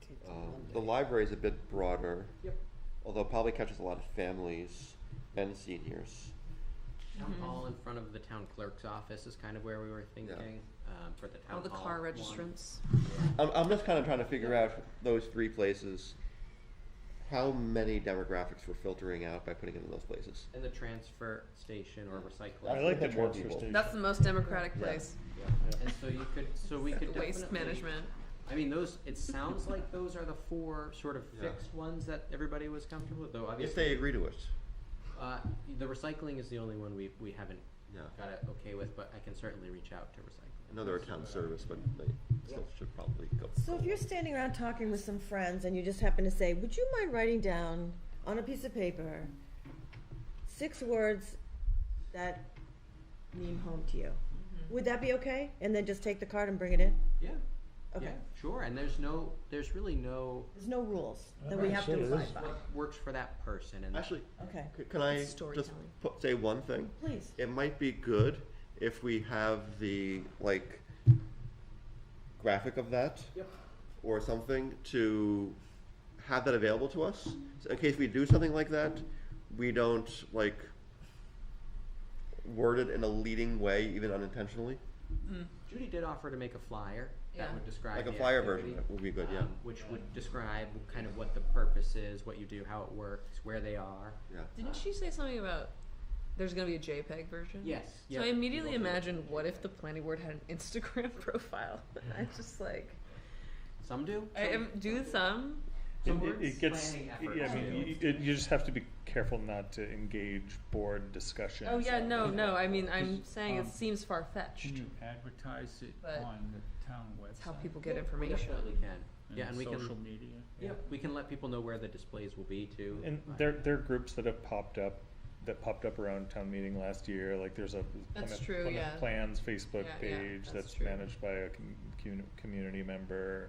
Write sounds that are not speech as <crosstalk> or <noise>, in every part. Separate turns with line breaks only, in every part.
it's on
Um,
Monday.
the library is a bit broader,
Yep,
although it probably catches a lot of families and seniors.
Town
Mm-hmm.
hall in front of the town clerk's office is kind of where we were thinking um, for the town hall.
All the car
one.
registrants.
I'm, I'm just kind of trying to figure out those three places. How many demographics we're filtering out by putting it in those places?
And the transfer station or recycling.
I like the
Get more
transfer
people.
station.
That's the most democratic
Yeah.
place.
Yeah. And so you could, so we could definitely.
Waste management.
I mean, those, it sounds like those are the four sort of
Yeah.
fixed ones that everybody was comfortable with, though
If
obviously.
they agree to it.
Uh, the recycling is the only one we, we haven't
Yeah.
got it okay with, but I can certainly reach out to recycling.
I know they're a town service, but they still should probably go.
So if you're standing around talking with some friends and you just happen to say, would you mind writing down on a piece of paper six words that mean home to you?
Mm-hmm.
Would that be okay? And then just take the card and bring it in?
Yeah, yeah,
Okay.
sure, and there's no, there's really no,
There's no rules that we
Alright,
have
so
to
it
abide
is-
by.
what works for that person and.
Actually,
Okay,
c- can I just
storytelling.
put, say one thing?
please.
It might be good if we have the, like, graphic of that.
Yep.
or something to have that available to us. So in case we do something like that, we don't like word it in a leading way, even unintentionally.
Judy did offer to make a flyer that
Yeah.
would describe
Like a
the
flyer
activity,
version would be good, yeah.
um, which would describe kind of what the purpose is, what you do, how it works, where they are.
Yeah.
Didn't she say something about there's going to be a JPEG version?
Yes.
So I immediately imagined what if the planning board had an Instagram <laughs> profile? I just like
some do.
I am do some.
It-
Some
It, it gets, yeah, I mean, you, it- you just have to be careful not to engage board discussion.
Oh yeah, no, no. I mean, I'm
Is-
saying it
um,
seems far fetched.
Can you advertise it
But
on the town website?
It's how people get
we
information.
definitely can. Yeah, and we
Social
can.
media?
Yeah, we can let people know where the displays will be too.
And
Right.
there, there are groups that have popped up, that popped up around town meeting last year, like there's a
That's
Plymouth-
true,
Plymouth
yeah.
Plans Facebook
Yeah, yeah,
page
that's
that's
true.
managed by a com- commu- community member,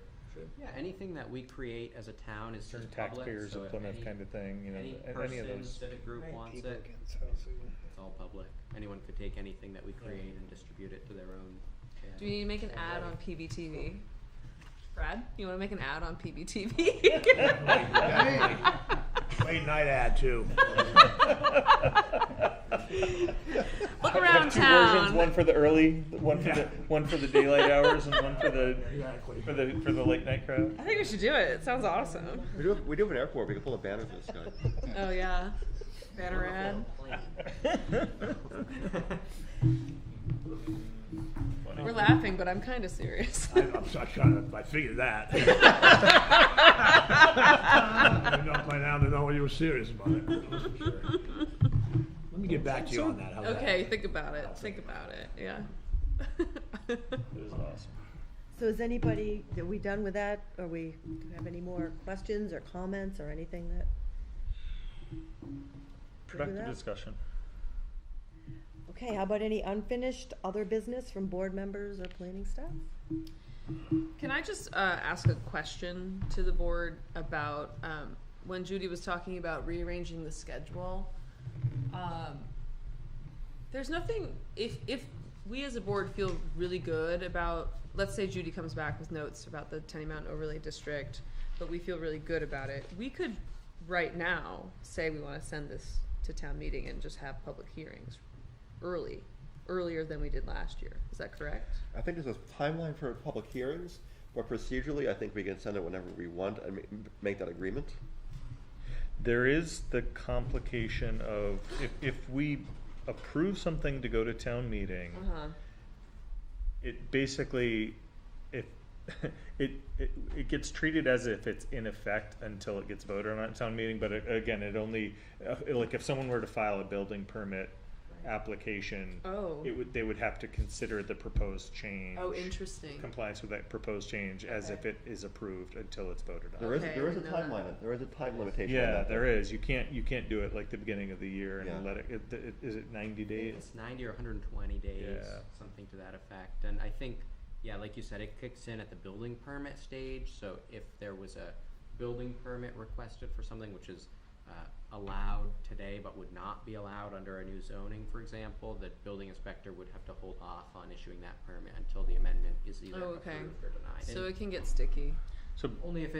Yeah, anything that we create as a town is just public.
taxpayers
so
of
if
Plymouth
any-
kind of thing, you know,
Any
a- any of
person
those.
that a group wants
people
it,
get housing.
it's all public. Anyone could take anything that we create and distribute it to their own.
Do we need to make an ad on PBTV? Brad, you want to make an ad on PBTV? <laughs>
Late night ad too. <laughs>
Look
Have
around
two versions,
town.
one for the early, one for the,
Yeah.
one for the daylight hours and one for the,
Exactly.
for the, for the late night crowd.
I think we should do it. It sounds awesome.
We do have, we do have an airport. We can pull a banner for this guy.
<laughs> Oh yeah, banner ad.
<laughs>
We're laughing, but I'm kind of serious. <laughs>
<laughs>
I, I'm, I kind of, I figured that. <laughs> I know by now to know you were serious about it. that's for sure. Let me get back to you on that. how's that?
Okay, think about it. Think about it. Yeah. <laughs>
It was awesome.
So is anybody, are we done with that? Are we, do we have any more questions or comments or anything that?
Productive
that?
discussion.
Okay, how about any unfinished other business from board members or planning staff?
Can I just uh, ask a question to the board about um, when Judy was talking about rearranging the schedule? Um, there's nothing if if we as a board feel really good about let's say Judy comes back with notes about the Tenny Mountain Overlay District, but we feel really good about it. We could right now say we want to send this to town meeting and just have public hearings early, earlier than we did last year. Is that correct?
I think there's a timeline for public hearings, but procedurally, I think we can send it whenever we want and ma- make that agreement.
There is the complication of if, if we approve something to go to town meeting,
Uh-huh.
it basically, if, <laughs> it, it, it gets treated as if it's in effect until it gets voted on at town meeting, but it- again, it only, uh, like if someone were to file a building permit application,
Oh.
it would, they would have to consider the proposed change.
Oh, interesting.
Compliance with that proposed change as if
Okay.
it is approved until it's voted on.
There is,
Okay, I
there is a
didn't know that.
timeline, there is a time limitation on
Yeah,
that, though.
there is. You can't, you can't do it like the beginning of the year
Yeah.
and let it, it- it- is it ninety days?
It's ninety or hundred and twenty days,
Yeah.
something to that effect, and I think, yeah, like you said, it kicks in at the building permit stage, so if there was a building permit requested for something which is uh, allowed today but would not be allowed under a new zoning, for example, the building inspector would have to hold off on issuing that permit until the amendment is either
Oh, okay.
approved or denied.
So
And
it can get sticky.
So
Only if